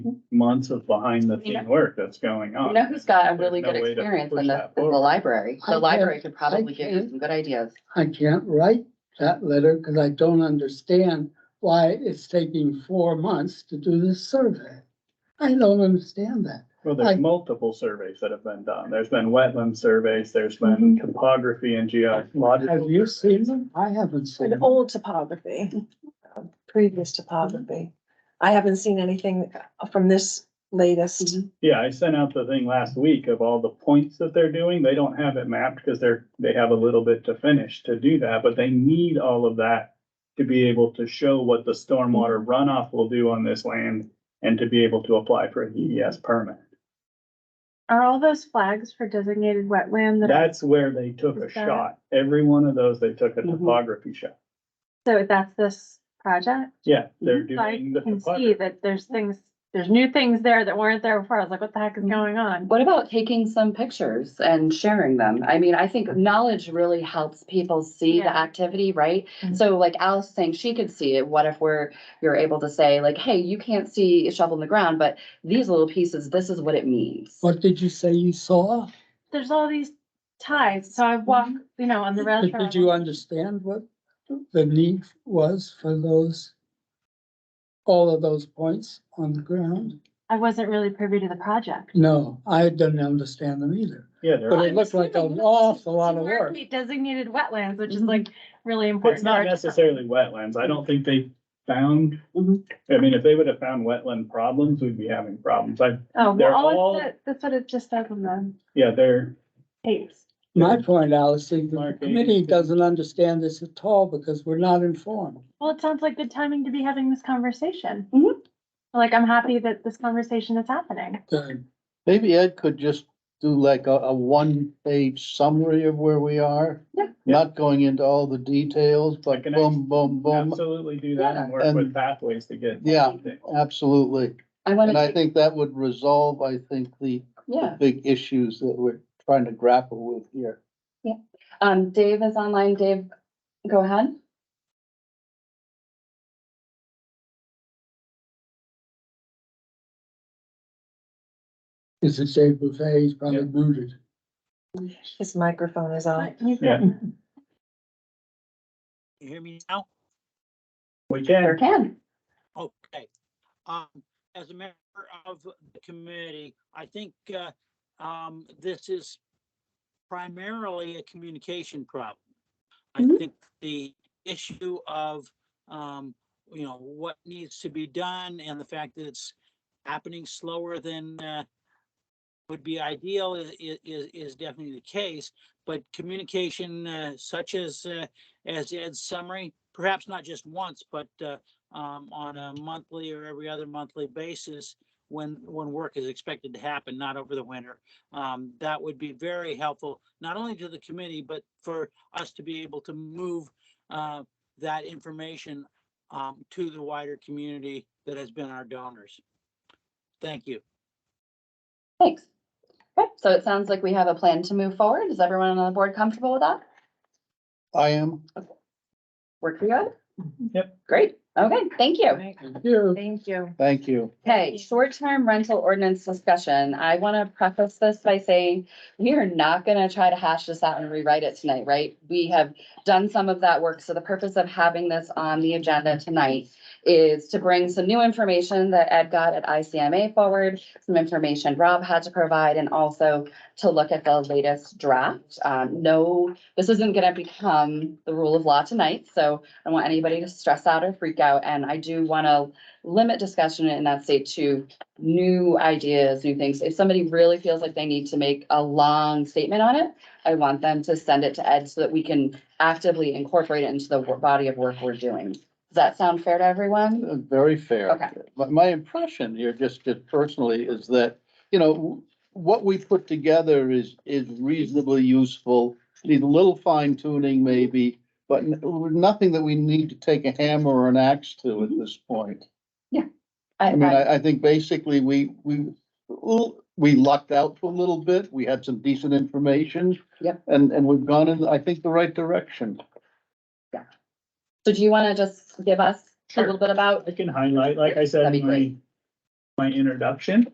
months of behind the scene work that's going You on. know who's got a There's really no good way to experience push in the, that in the forward. library? I The can't- library could probably I give you can't. some good ideas. I can't write that letter because I don't understand why it's taking four months to do this survey. I don't understand that. Well, there's I- multiple surveys that have been done. There's been Mm-hmm. wetland surveys, there's been topography and Have geological. you seen them? I haven't seen An them. old topography, uh, previous topography. I haven't seen anything from this latest. Yeah, I sent out the thing last week of all the points that they're doing. They don't have it mapped because they're, they have a little bit to finish to do that, but they need all of that to be able to show what the stormwater runoff will do on this land and to be able to apply for a DES permit. Are all those flags for designated wetland? that- That's where they took a Is that- shot. Every one of those, they took a Mhm. topography shot. So that's this project? Yeah, they're So I doing the can see topography. that there's things, there's new things there that weren't there before. I was like, what the heck is Mm-hmm. going on? What about taking some pictures and sharing them? I mean, I think knowledge really helps people see the Yeah. activity, right? Mhm. So like Alice saying she could see it, what if we're, you're able to say like, hey, you can't see a shovel in the ground, but these little pieces, this is what it means. What did you say you saw? There's all these ties. So I walk, you know, on the rail But trail. Mm-hmm. Did you understand what the need was for those? All of those points on the ground? I wasn't really privy to the project. No, I didn't understand them either. Yeah, they're. But it looked like an awful lot of work. Mm-hmm. We Designated wetlands, which is Mhm. like really important. It's to not our department. necessarily wetlands. I don't think they found, Mhm. I mean, if they would have found wetland problems, we'd be having problems. I, Oh, they're well, all all- it said- that's what it just said on the yeah, they're, tapes. My point, Alice, is the Mark, committee anything? doesn't understand this at all because we're not informed. Well, it sounds like good timing to be having this conversation. Mm-hmm. Mhm. Like, I'm happy that this conversation is happening. Good. Maybe Ed could just do like a, a one-page summary of where we are. Yeah. Not going into all the details, but can boom, boom, boom, absolutely do that and work And- with pathways to get. Yeah. absolutely. I want And I to, think that would resolve, I think, the, the yeah. big issues that we're trying to grapple with here. Um, Dave is online. Dave, go ahead. It's a Dave Buffet, he's probably Yeah. booted. His microphone is on. But you Yeah. can- You hear me now? We can, Sure can. Okay. Um, as a member of the committee, I think, uh, um, this is primarily a communication problem. I Mhm. think the issue of, um, you know, what needs to be done and the fact that it's happening slower than, uh, would be ideal i- i- is, is definitely the case, but communication, uh, such as, uh, as Ed's summary, perhaps not just once, but, uh, um, on a monthly or every other monthly basis when, when work is expected to happen, not over the winter. Um, that would be very helpful, not only to the committee, but for us to be able to move, uh, that information, um, to the wider community that has been our donors. Thank you. Thanks. Okay, so it sounds like we have a plan to move forward. Is everyone on the board comfortable with that? I am, Work for you? Yep. Great. Okay, thank you. You. Thank you. thank you. Okay, short-term rental ordinance discussion. I want to preface this by saying we are not going to try to hash this out and rewrite it tonight, right? We have done some of that work. So the purpose of having this on the agenda tonight is to bring some new information that Ed got at ICMA forward, some information Rob had to provide, and also to look at the latest draft. Um, no, this isn't going to become the rule of law tonight, so I don't want anybody to stress out or freak out. And I do want to limit discussion in that state to new ideas, new things. If somebody really feels like they need to make a long statement on it, I want them to send it to Ed so that we can actively incorporate it into the wor- body of work we're doing. Does that sound fair to everyone? Uh, Very fair. Okay. My, my impression here, just, just personally, is that, you know, what we put together is, is reasonably useful. Need a little fine tuning maybe, but n- nothing that we need to take a hammer or an axe to at Mm-hmm. this point. I mean, uh, I, I think basically we, we, we lucked out for a little bit. We had some decent information. Yep. And, and we've gone in, I think, the right direction. So do you want to just give us a Sure. little bit about, I can highlight, like I said, That'd my, be great. my introduction.